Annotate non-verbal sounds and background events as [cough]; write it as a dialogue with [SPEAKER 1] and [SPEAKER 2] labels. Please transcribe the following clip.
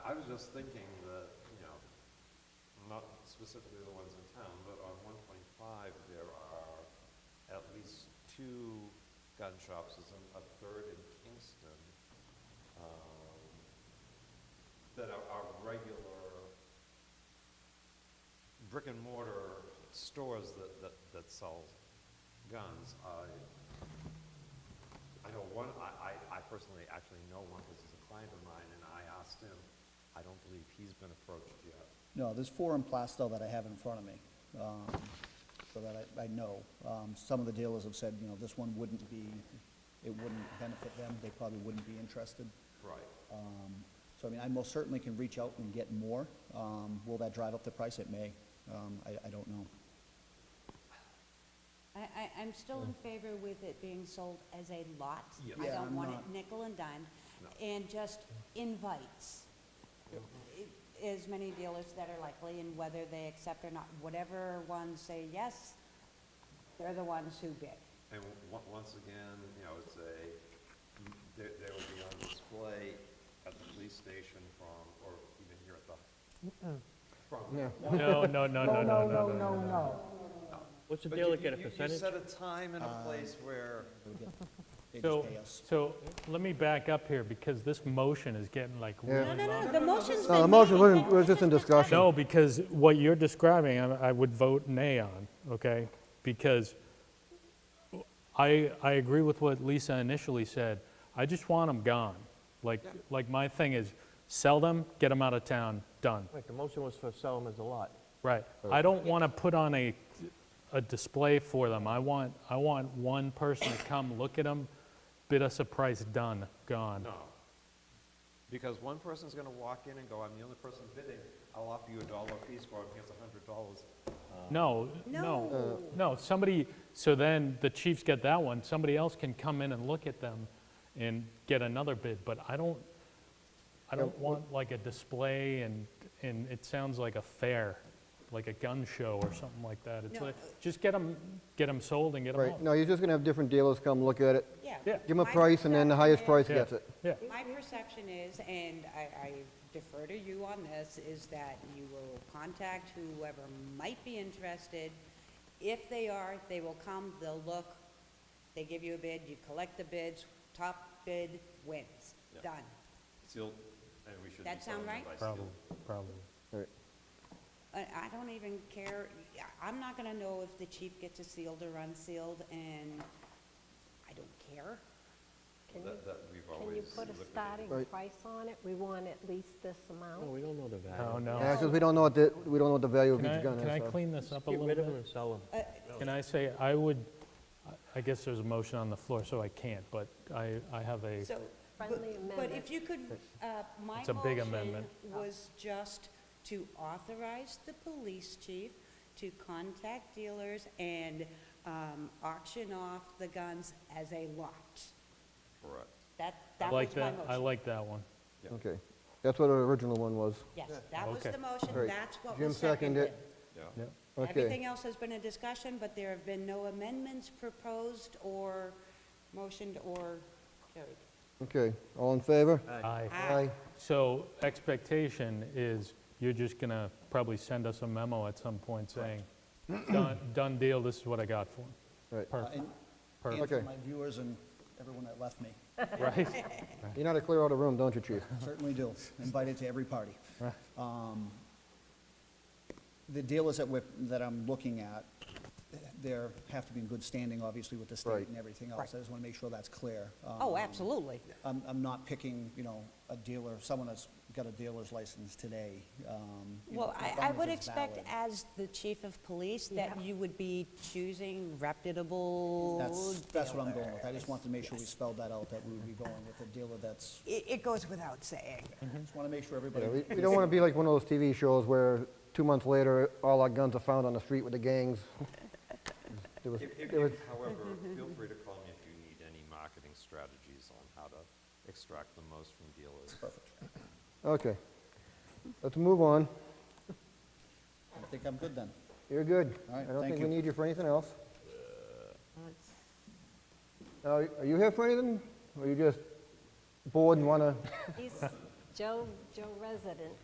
[SPEAKER 1] just thinking that, you know, not specifically the ones in town, but on one point five, there are at least two gun shops, there's an- a third in Kingston, um, that are, are regular brick and mortar stores that, that, that sell guns. I, I know one, I, I, I personally actually know one because he's a client of mine, and I asked him, I don't believe he's been approached yet.
[SPEAKER 2] No, there's four in Plastow that I have in front of me, um, so that I, I know. Um, Some of the dealers have said, you know, this one wouldn't be, it wouldn't benefit them, they probably wouldn't be interested.
[SPEAKER 1] Right.
[SPEAKER 2] Um, So, I mean, I most certainly can reach out and get more. Um, Will that drive up the price? It may. Um, I, I don't know.
[SPEAKER 3] I, I, I'm still in favor with it being sold as a lot.
[SPEAKER 1] Yeah.
[SPEAKER 3] I
[SPEAKER 2] Yeah,
[SPEAKER 3] don't
[SPEAKER 2] I'm
[SPEAKER 3] want it
[SPEAKER 2] not-
[SPEAKER 3] nickel and dime,
[SPEAKER 1] No.
[SPEAKER 3] and just invites. i- As many dealers that are likely, and whether they accept or not, whatever ones say yes, they're the ones who bid.
[SPEAKER 1] And on- once again, you know, it's a, they, they will be on display at the police station from, or even here at the, from.
[SPEAKER 4] No, no, no, no, no, no, no.
[SPEAKER 5] no.
[SPEAKER 4] What's the
[SPEAKER 1] But you-
[SPEAKER 4] deal, get a
[SPEAKER 1] you- you- You
[SPEAKER 4] percentage? Uh,
[SPEAKER 1] set a time and a place where,
[SPEAKER 2] They would get- They
[SPEAKER 4] So,
[SPEAKER 2] just pay us.
[SPEAKER 4] so let me back up here, because this motion is getting like really
[SPEAKER 3] No, no,
[SPEAKER 4] long.
[SPEAKER 3] no, the motion's
[SPEAKER 5] No, the
[SPEAKER 3] been
[SPEAKER 5] motion
[SPEAKER 3] made.
[SPEAKER 5] wasn't, was just in discussion.
[SPEAKER 4] No, because what you're describing, I I would vote nay on, okay? Because I, I agree with what Lisa initially said. I just want them gone. Like, like my thing is, sell them, get them out of town, done.
[SPEAKER 6] Right, the motion was for sell them as a lot.
[SPEAKER 4] Right. I don't want to put on a, a display for them. I want, I want one person to come, look at them, bid us a price, done, gone.
[SPEAKER 1] no. Because one person's gonna walk in and go, I'm the only person bidding, I'll offer you a dollar a piece for it, here's a hundred dollars.
[SPEAKER 4] No, no, no, somebody, so then the chief's got that one, somebody else can come in and look at them and get another bid, but I don't, I don't want like a display and, and it sounds like a fair, like a gun show or something like that. It's
[SPEAKER 3] No.
[SPEAKER 4] like, just get them, get them sold and get them
[SPEAKER 5] Right,
[SPEAKER 4] out.
[SPEAKER 5] no, you're just gonna have different dealers come look at it,
[SPEAKER 3] Yeah.
[SPEAKER 4] Yeah.
[SPEAKER 5] give them a
[SPEAKER 3] My
[SPEAKER 5] price, and then the highest
[SPEAKER 3] perception
[SPEAKER 5] price
[SPEAKER 4] Yeah,
[SPEAKER 5] gets it.
[SPEAKER 4] Yeah,
[SPEAKER 3] is- My perception is, and I, I defer to you on this, is that you will contact whoever might be interested. If they are, they will come, they'll look, they give you a bid, you collect the bids, top bid wins,
[SPEAKER 1] Yeah.
[SPEAKER 3] done.
[SPEAKER 1] Sealed, and we should be
[SPEAKER 3] That
[SPEAKER 1] selling
[SPEAKER 3] sound
[SPEAKER 1] them
[SPEAKER 3] right?
[SPEAKER 1] by seal.
[SPEAKER 4] probably, probably.
[SPEAKER 5] Right.
[SPEAKER 3] I, I don't even care, I- I'm not gonna know if the chief gets it sealed or unsealed, and I don't care.
[SPEAKER 7] Can you,
[SPEAKER 1] That, that we've
[SPEAKER 7] can you
[SPEAKER 1] always
[SPEAKER 7] put a
[SPEAKER 1] liquidated.
[SPEAKER 7] starting
[SPEAKER 5] Right.
[SPEAKER 7] price on it? We want at least this
[SPEAKER 6] No,
[SPEAKER 7] amount.
[SPEAKER 6] we don't know the value.
[SPEAKER 4] Oh,
[SPEAKER 5] Yeah,
[SPEAKER 4] no.
[SPEAKER 5] 'cause we don't know what the, we don't know what the value of
[SPEAKER 4] Can I,
[SPEAKER 5] each gun is.
[SPEAKER 4] can I
[SPEAKER 5] so.
[SPEAKER 4] clean this up a
[SPEAKER 6] Get
[SPEAKER 4] little
[SPEAKER 6] rid of them
[SPEAKER 4] bit?
[SPEAKER 6] and sell them.
[SPEAKER 3] Uh,
[SPEAKER 4] Can I say, I would, I- I guess there's a motion on the floor, so I can't, but I, I have a.
[SPEAKER 3] So, but-
[SPEAKER 7] Friendly
[SPEAKER 3] but if
[SPEAKER 7] amendment.
[SPEAKER 3] you could, uh, my
[SPEAKER 4] It's a big
[SPEAKER 3] motion
[SPEAKER 4] amendment.
[SPEAKER 3] was just to authorize the police chief to contact dealers and um, auction off the guns as a lot.
[SPEAKER 1] Correct.
[SPEAKER 3] That,
[SPEAKER 4] I
[SPEAKER 3] that
[SPEAKER 4] like
[SPEAKER 3] was my
[SPEAKER 4] that, I
[SPEAKER 3] motion.
[SPEAKER 4] like that one.
[SPEAKER 5] Okay, that's what the original one was.
[SPEAKER 3] Yes, that was
[SPEAKER 4] Okay.
[SPEAKER 3] the motion,
[SPEAKER 5] Right.
[SPEAKER 3] that's what
[SPEAKER 5] Jim
[SPEAKER 3] was seconded.
[SPEAKER 5] seconded it.
[SPEAKER 1] Yeah.
[SPEAKER 4] Yep.
[SPEAKER 5] Okay,
[SPEAKER 3] Everything else has been a discussion, but there have been no amendments proposed or motioned or carried.
[SPEAKER 5] okay, all in favor?
[SPEAKER 4] Aye.
[SPEAKER 5] Aye.
[SPEAKER 4] So expectation is you're just gonna probably send us a memo at some point saying, done, done deal, this is what I got for 'em."
[SPEAKER 5] Right.
[SPEAKER 4] Perfect,
[SPEAKER 6] Uh,
[SPEAKER 2] And- And
[SPEAKER 4] perfect,
[SPEAKER 2] for
[SPEAKER 5] Okay.
[SPEAKER 2] my viewers and everyone that left me,
[SPEAKER 4] right?
[SPEAKER 5] You know how to clear out a room, don't
[SPEAKER 4] [laughs]
[SPEAKER 5] you, chief?
[SPEAKER 2] certainly do, invited to every party. Um, The dealers that we're, that I'm looking at, they're, have to be in good standing, obviously, with the state
[SPEAKER 5] Right.
[SPEAKER 2] and everything else. I just want to make sure that's clear.
[SPEAKER 3] Oh,
[SPEAKER 2] Um,
[SPEAKER 3] absolutely.
[SPEAKER 2] I'm, I'm not picking, you know, a dealer, someone that's got a dealer's license today. um, you know,
[SPEAKER 3] Well,
[SPEAKER 2] as
[SPEAKER 3] I,
[SPEAKER 2] long
[SPEAKER 3] I
[SPEAKER 2] as
[SPEAKER 3] would
[SPEAKER 2] it's
[SPEAKER 3] expect
[SPEAKER 2] valid.
[SPEAKER 3] as the chief of police that
[SPEAKER 7] Yeah.
[SPEAKER 3] you would be choosing reputable
[SPEAKER 2] That's, that's what I'm going with. I
[SPEAKER 3] dealers.
[SPEAKER 2] just want to make sure we spelled that out, that we would be going with a dealer that's,
[SPEAKER 3] It, it goes without saying.
[SPEAKER 2] just want to make sure everybody.
[SPEAKER 5] Mm-hmm. Yeah, We we don't want to be like one of those TV shows where two months later, all our guns are found on the street with the
[SPEAKER 3] [laughs]
[SPEAKER 5] gangs. There was-
[SPEAKER 1] If- if-
[SPEAKER 5] there was-
[SPEAKER 1] if, However, feel free to call me if you need any marketing strategies on how to extract the most from dealers.
[SPEAKER 5] Okay, let's move on.
[SPEAKER 2] I think I'm good then.
[SPEAKER 5] You're good.
[SPEAKER 2] All right,
[SPEAKER 5] I don't
[SPEAKER 2] thank
[SPEAKER 5] think we
[SPEAKER 2] you.
[SPEAKER 5] need you for anything else. Now, Are you here for anything? Or you just bored and want to?
[SPEAKER 7] He's Joe, Joe resident.